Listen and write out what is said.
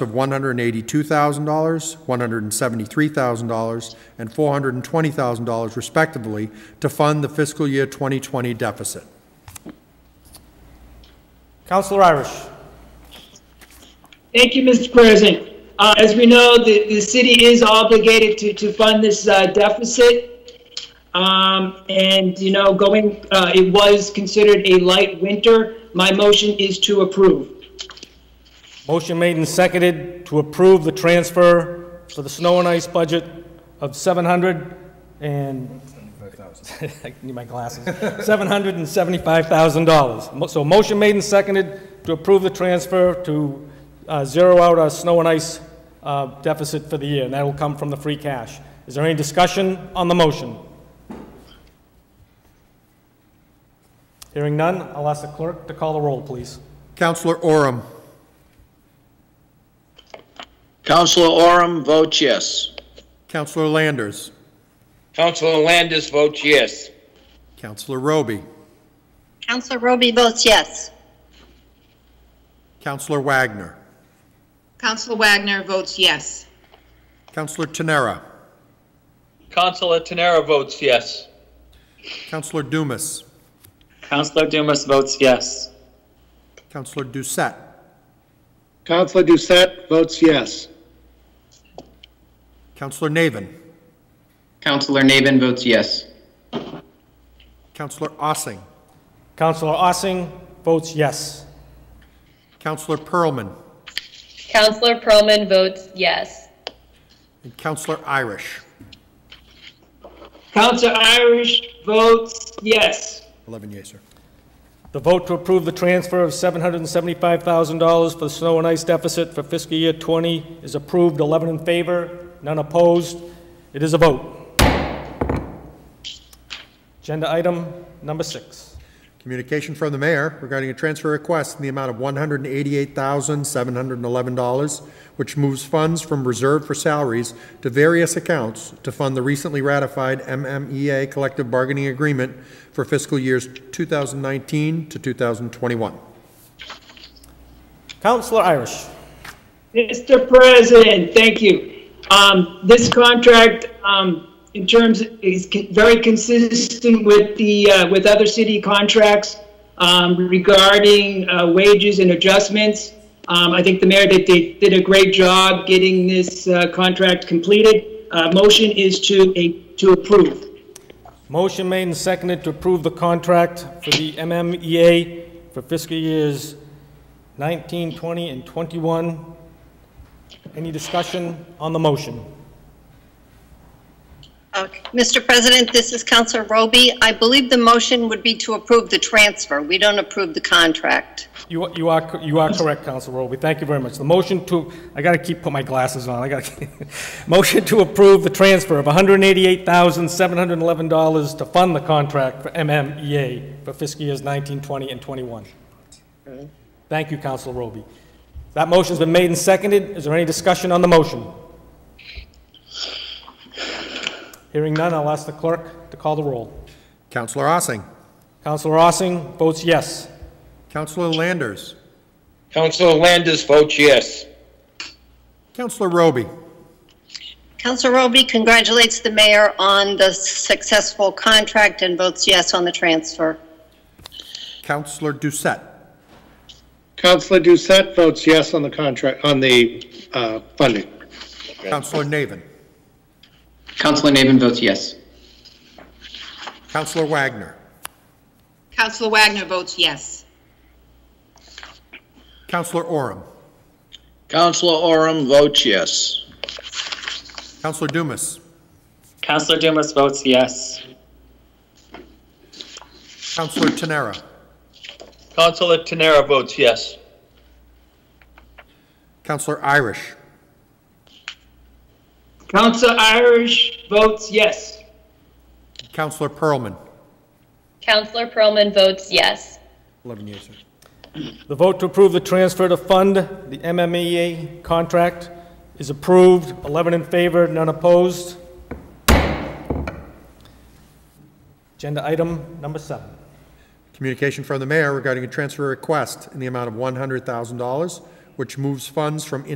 of $182,000, $173,000, and $420,000 respectively to fund the fiscal year 2020 deficit. Counselor Irish. Thank you, Mr. President. Uh, As we know, the, the city is obligated to, to fund this uh, deficit. Um, And, you know, going, uh, it was considered a light winter. My motion is to approve. Motion made and seconded to approve the transfer for the snow and ice budget of 700 and... I need my glasses. $775,000. Mo- So motion made and seconded to approve the transfer to uh, zero out our snow and ice uh, deficit for the year, and that will come from the free cash. Is there any discussion on the motion? Hearing none, I'll ask the clerk to call the roll, please. Counselor Oram, Counselor Oram votes yes. Counselor Landers, Counselor Landis votes yes. Counselor Roby, Counselor Roby votes yes. Counselor Wagner, Counselor Wagner votes yes. Counselor Tenera, Counselor Tenera votes yes. Counselor Dumas, Counselor Dumas votes yes. Counselor Doucette, Counselor Doucette votes yes. Counselor Navin, Counselor Nabin votes yes. Counselor Ossing, Counselor Ossing votes yes. Counselor Pearlman, Counselor Pearlman votes yes. and Counselor Irish. Counselor Irish votes yes. 11 yes, sir. The vote to approve the transfer of $775,000 for the snow and ice deficit for fiscal year 20 is approved, 11 in favor, none opposed. It is a vote. Agenda item number six. Communication from the mayor regarding a transfer request in the amount of $188,711, which moves funds from reserve for salaries to various accounts to fund the recently ratified MMEA collective bargaining agreement for fiscal years 2019 to 2021. Counselor Irish. Mr. President, thank you. Um, This contract, um, in terms, is con- very consistent with the, uh, with other city contracts um, regarding uh, wages and adjustments. Um, I think the mayor did, they did a great job getting this uh, contract completed. Uh, Motion is to, a to approve. Motion made and seconded to approve the contract for the MMEA for fiscal years 19, 20, and 21. Any discussion on the motion? Okay. Mr. President, this is Counselor Roby. I believe the motion would be to approve the transfer. We don't approve the contract. You are, you are, co- you are correct, Counsel Roby. Thank you very much. The motion to, I gotta keep, put my glasses on, I gotta, motion to approve the transfer of $188,711 to fund the contract for MMEA for fiscal years 19, 20, and 21. Thank you, Counsel Roby. That motion's been made and seconded. Is there any discussion on the motion? Hearing none, I'll ask the clerk to call the roll. Counselor Ossing, Counselor Ossing votes yes. Counselor Landers, Counselor Landis votes yes. Counselor Roby, Counselor Roby congratulates the mayor on the successful contract and votes yes on the transfer. Counselor Doucette, Counselor Doucette votes yes on the contract, on the uh, funding. Counselor Navin, Counselor Nabin votes yes. Counselor Wagner, Counselor Wagner votes yes. Counselor Oram, Counselor Oram votes yes. Counselor Dumas, Counselor Dumas votes yes. Counselor Tenera, Counselor Tenera votes yes. Counselor Irish, Counselor Irish votes yes. Counselor Pearlman. Counselor Pearlman votes yes. 11 yes, sir. The vote to approve the transfer to fund the MMEA contract is approved, 11 in favor, none opposed. Agenda item number seven. Communication from the mayor regarding a transfer request in the amount of $100,000, which moves funds from